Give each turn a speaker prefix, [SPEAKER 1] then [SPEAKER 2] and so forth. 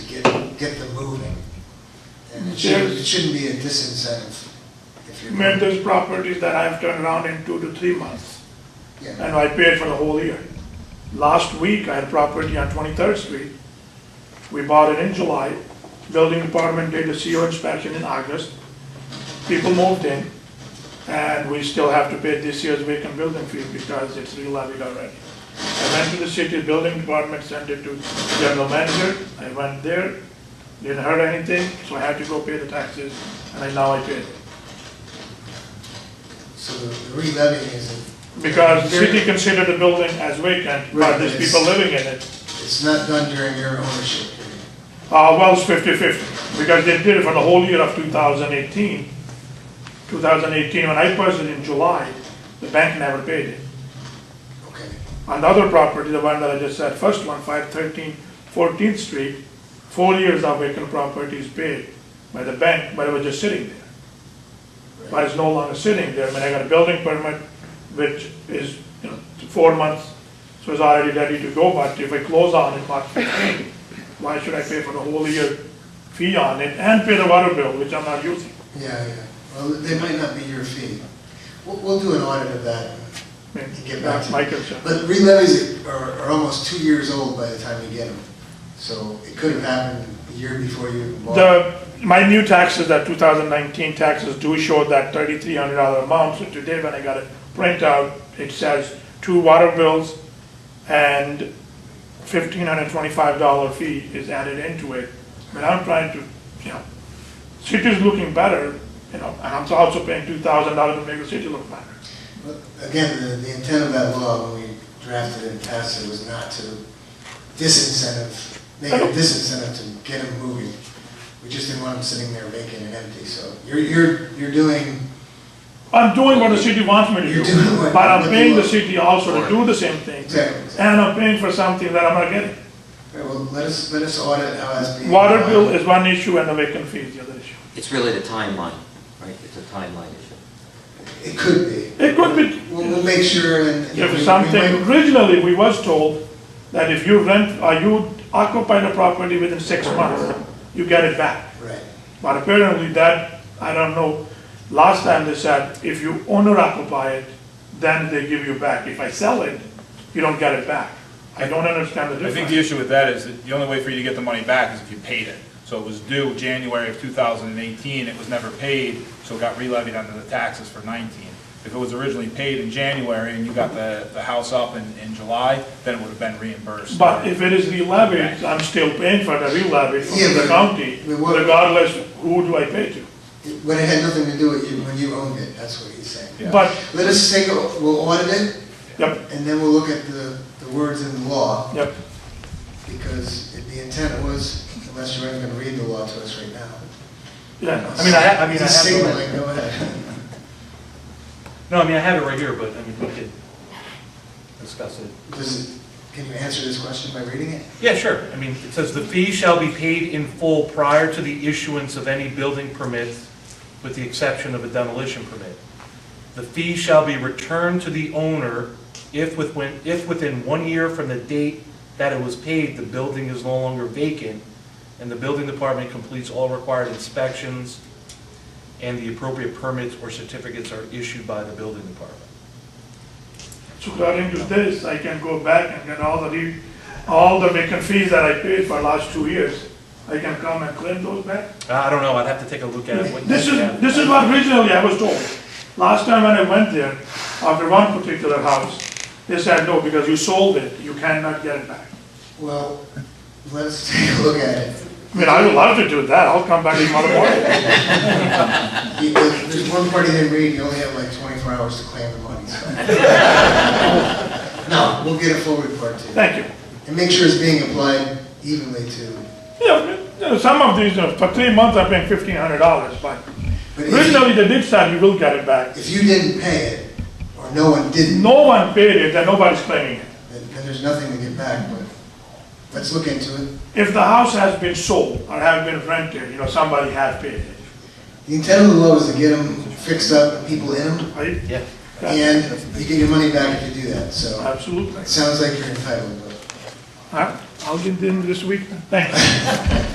[SPEAKER 1] get, get them moving. And it shouldn't,
[SPEAKER 2] There's-
[SPEAKER 1] it shouldn't be a disincentive if you're.
[SPEAKER 2] Man, there's properties that I've turned around in two to three months,
[SPEAKER 1] Yeah,
[SPEAKER 2] and I paid for the whole year. Last week, I had property on Twenty-third Street. We bought it in July. Building department did a CO inspection in August. People moved in, and we still have to pay this year's vacant building fee because it's re-levied already. I went to the city building department, sent it to general manager. I went there, didn't hurt anything, so I had to go pay the taxes, and I- now I paid it.
[SPEAKER 1] so the re-levying is,
[SPEAKER 2] Because the city considered the building as vacant, but there's people living in it.
[SPEAKER 1] it's not done during your ownership period.
[SPEAKER 2] Uh, well, it's fifty-fifty, because they did it for the whole year of two thousand eighteen. Two thousand eighteen, when I purchased it in July, the bank never paid it.
[SPEAKER 1] Okay,
[SPEAKER 2] On the other property, the one that I just said, first one, 513 14th street, four years of vacant property is paid by the bank, but it was just sitting there. But it's no longer sitting there, I mean, I got a building permit, which is, you know, four months, so it's already ready to go, but if I close on it, March 15, why should I pay for the whole year fee on it and pay the water bill, which I'm not using?
[SPEAKER 1] yeah, yeah, well, they might not be your fee. We'll, we'll do an audit of that.
[SPEAKER 2] I mean,
[SPEAKER 1] You get back
[SPEAKER 2] That's
[SPEAKER 1] to-
[SPEAKER 2] my concern.
[SPEAKER 1] But re-levies are, are almost two years old by the time you get them. So it could have happened a year before you even bought.
[SPEAKER 2] The, my new taxes, that 2019 taxes do show that $3,300 amount, so today when I got a printout, it says two water bills and $1,525 fee is added into it. But I'm trying to, you know, city's looking better, you know, and I'm also paying $2,000 to make the city look better.
[SPEAKER 1] But Again, the, the intent of that law, when we drafted it and passed it, was not to disincentive, make it a disincentive to get them moving. We just didn't want them sitting there vacant and empty, so you're, you're, you're doing,
[SPEAKER 2] I'm doing what the city wants me to
[SPEAKER 1] You're
[SPEAKER 2] do,
[SPEAKER 1] doing what-
[SPEAKER 2] but I'm
[SPEAKER 1] what
[SPEAKER 2] paying
[SPEAKER 1] you
[SPEAKER 2] the
[SPEAKER 1] want.
[SPEAKER 2] city also to do the same thing.
[SPEAKER 1] Exactly.
[SPEAKER 2] And I'm paying for something that I'm not getting.
[SPEAKER 1] all right, well, let us, let us audit how that's being.
[SPEAKER 2] Water bill is one issue and the vacant fee is the other issue.
[SPEAKER 3] It's really the timeline, right? It's a timeline issue.
[SPEAKER 1] It could be.
[SPEAKER 2] It could be,
[SPEAKER 1] We'll, we'll make sure and. and we-
[SPEAKER 2] if
[SPEAKER 1] we
[SPEAKER 2] something,
[SPEAKER 1] might-
[SPEAKER 2] originally, we was told that if you rent, or you occupy the property within six months, you get it back.
[SPEAKER 1] Right,
[SPEAKER 2] But apparently that, I don't know, last time they said, if you owner occupy it, then they give you back. If I sell it, you don't get it back. I don't understand the
[SPEAKER 4] I think
[SPEAKER 2] difference.
[SPEAKER 4] the issue with that is that the only way for you to get the money back is if you paid it. So it was due January of 2018, it was never paid, so it got re-levied under the taxes for 19. If it was originally paid in January and you got the, the house up in, in July, then it would have been reimbursed.
[SPEAKER 2] But if it is re-levied, I'm still paying for the re-levy from
[SPEAKER 1] Yeah,
[SPEAKER 2] the
[SPEAKER 1] but
[SPEAKER 2] county,
[SPEAKER 1] we want-
[SPEAKER 2] regardless who do I pay to.
[SPEAKER 1] but it had nothing to do with you, when you owned it, that's what he's saying.
[SPEAKER 4] Yeah.
[SPEAKER 2] But,
[SPEAKER 1] Let us take, a- we'll audit it,
[SPEAKER 2] yep,
[SPEAKER 1] and then we'll look at the, the words in the law.
[SPEAKER 2] yep.
[SPEAKER 1] Because if the intent was, unless you're even gonna read the law to us right now.
[SPEAKER 2] Yeah,
[SPEAKER 5] I mean, I ha- I mean, I
[SPEAKER 1] It's
[SPEAKER 5] have the-
[SPEAKER 1] signaling, go ahead.
[SPEAKER 5] No, I mean, I have it right here, but I mean, we could discuss it.
[SPEAKER 1] Does it, can you answer this question by reading it?
[SPEAKER 5] Yeah, sure. I mean, it says the fee shall be paid in full prior to the issuance of any building permit, with the exception of a demolition permit. The fee shall be returned to the owner if within, if within one year from the date that it was paid, the building is no longer vacant, and the building department completes all required inspections, and the appropriate permits or certificates are issued by the building department.
[SPEAKER 2] So according to this, I can go back and get all the, re- all the vacant fees that I paid for last two years. I can come and claim those back.
[SPEAKER 5] I don't know, I'd have to take a look at it. What-
[SPEAKER 2] This is, this is what originally I was told. Last time when I went there, after one particular house, they said, no, because you sold it, you cannot get it back.
[SPEAKER 1] Well, let's take a look at it.
[SPEAKER 2] I mean, I would love to do that, I'll come back tomorrow morning.
[SPEAKER 1] You- There's one part you didn't read, you only have like twenty-four hours to claim the money, so. No, we'll get a full report to you.
[SPEAKER 2] Thank you.
[SPEAKER 1] And make sure it's being applied evenly to,
[SPEAKER 2] Yeah, you know, some of these, you know, for three months, I'm paying fifteen hundred dollars, but
[SPEAKER 1] But if-
[SPEAKER 2] originally they did say you will get it back.
[SPEAKER 1] if you didn't pay it, or no one didn't,
[SPEAKER 2] No one paid it, and nobody's claiming it.
[SPEAKER 1] then then there's nothing to get back, but let's look into it.
[SPEAKER 2] If the house has been sold or have been rented, you know, somebody has paid it,
[SPEAKER 1] The intent of the law is to get them fixed up, and people in them,
[SPEAKER 2] right?
[SPEAKER 5] Yeah.
[SPEAKER 1] and you get your money back if you do that, so
[SPEAKER 2] Absolutely.
[SPEAKER 1] it sounds like you're entitled, but.
[SPEAKER 2] Huh? I'll get them this week, thanks.